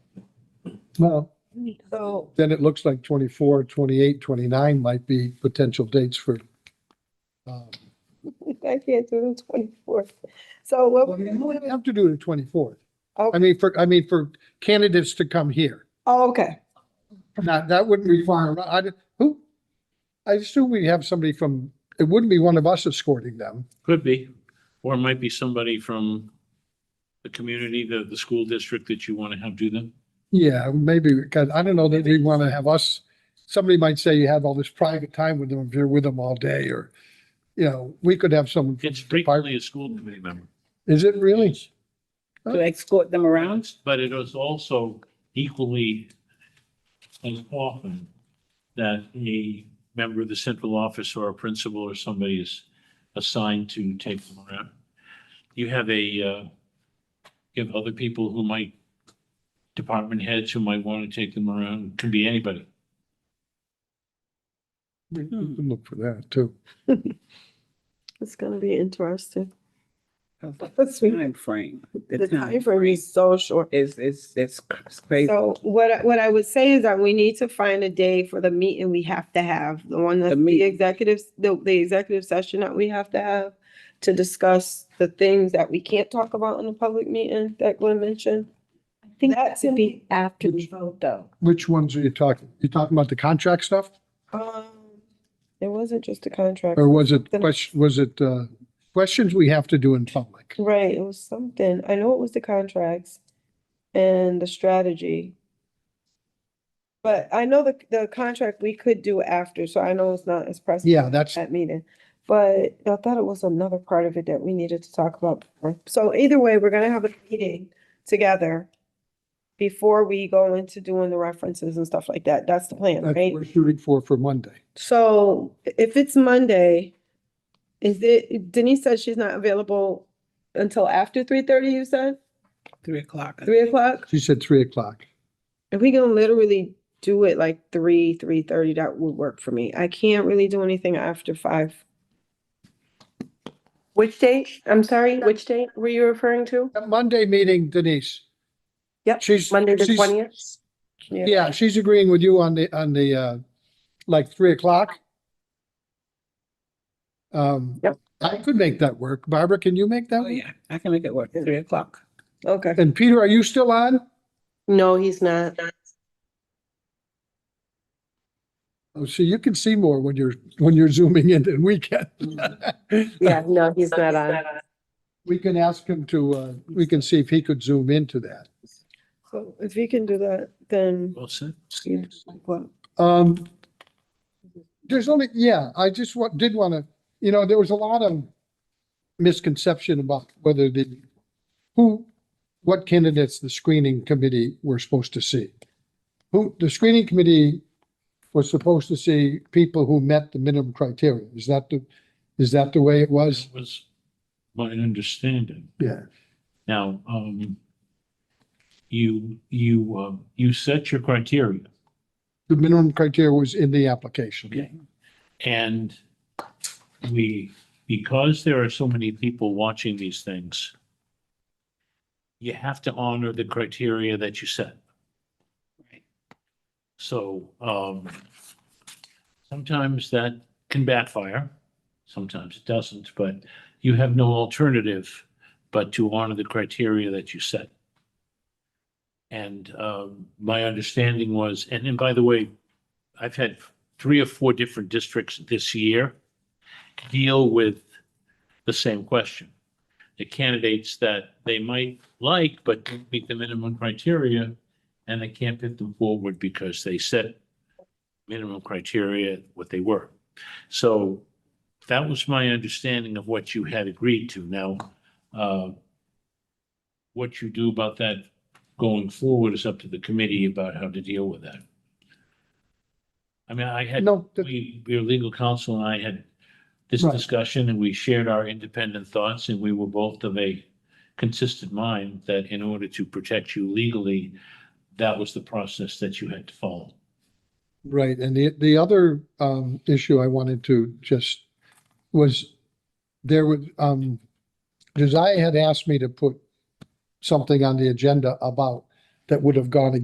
No, So then it looks like 24, 28, 29 might be potential dates for. uh, I can't do the twenty-fourth. So what well, we're You doing wouldn't is, have to do the twenty-fourth. I Okay. mean, for, I mean, for candidates to come here. oh, okay. Not, that wouldn't require, I, who? I assume we have somebody from, it wouldn't be one of us escorting them. Could be, or it might be somebody from the community, the, the school district that you want to have do them. Yeah, maybe, because I don't know that they want to have us, somebody might say you have all this private time with them, if you're with them all day, or, you know, we could have someone. from It's the department- frequently a school committee member. Is it really? to escort them around. But it is also equally as often that a member of the central office or a principal or somebody is assigned to take them around. You have a, uh, you have other people who might, department heads who might want to take them around, could be anybody. We we can look for that too. It's gonna be interesting. The Let's see. time frame. The time frame is so short. Is, is, it's crazy. So what, I- what I would say is that we need to find a day for the meeting we have to have, the one that The the meet- executives, the, the executive session that we have to have to discuss the things that we can't talk about in a public meeting that Glenn mentioned. I think That that should could be after the vote, though. Which ones are you talking? You talking about the contract stuff? Um, it wasn't just a contract, Or was it, ques- was it, uh, questions we have to do in public? right, it was something, I know it was the contracts and the strategy. But I know the, the contract we could do after, so I know it's not as pressing. Yeah, that's, that meeting. But I thought it was another part of it that we needed to talk about. before. So either way, we're gonna have a meeting together before we go into doing the references and stuff like that. That's the plan, that's right? we're shooting for, for Monday. So if it's Monday, is it, Denise said she's not available until after three thirty, you said? Three o'clock. Three o'clock? She said three o'clock. If we can literally do it like three, three thirty, that would work for me. I can't really do anything after five. Which date? I'm sorry, which date were you referring to? That Monday meeting, Denise. Yep, She's. Monday the she's- twentieth? Yeah, she's agreeing with you on the, on the, uh, like three o'clock. Um, Yep. I could make that work. Barbara, can you make that? Oh, work? yeah, I can make it work, three o'clock. Okay. And Peter, are you still on? No, he's not. Oh, so you can see more when you're, when you're zooming in than we can. Yeah, no, he's not on. We can ask him to, uh, we can see if he could zoom into that. So if you can do that, then. Well said. you- well, Um, there's only, yeah, I just wa- did want to, you know, there was a lot of misconception about whether the, who, what candidates the screening committee were supposed to see. Who, the screening committee was supposed to see people who met the minimum criteria. Is that the, is that the way it was? That was my understanding. Yeah. Now, um, you, you, uh, you set your criteria. The minimum criteria was in the application. And we, because there are so many people watching these things, you have to honor the criteria that you set. Right. So, um, sometimes that can backfire, sometimes it doesn't, but you have no alternative but to honor the criteria that you set. And, um, my understanding was, and and by the way, I've had three or four different districts this year deal with the same question. The candidates that they might like but don't meet the minimum criteria, and they can't put them forward because they set minimum criteria what they were. So that was my understanding of what you had agreed to. Now, uh, what you do about that going forward is up to the committee about how to deal with that. I mean, I had No, that- we, your legal counsel and I had this Right. discussion and we shared our independent thoughts and we were both of a consistent mind that in order to protect you legally, that was the process that you had to follow. Right, and the, the other, um, issue I wanted to just, was there was, um, Josiah had asked me to put something on the agenda about, that would have gone against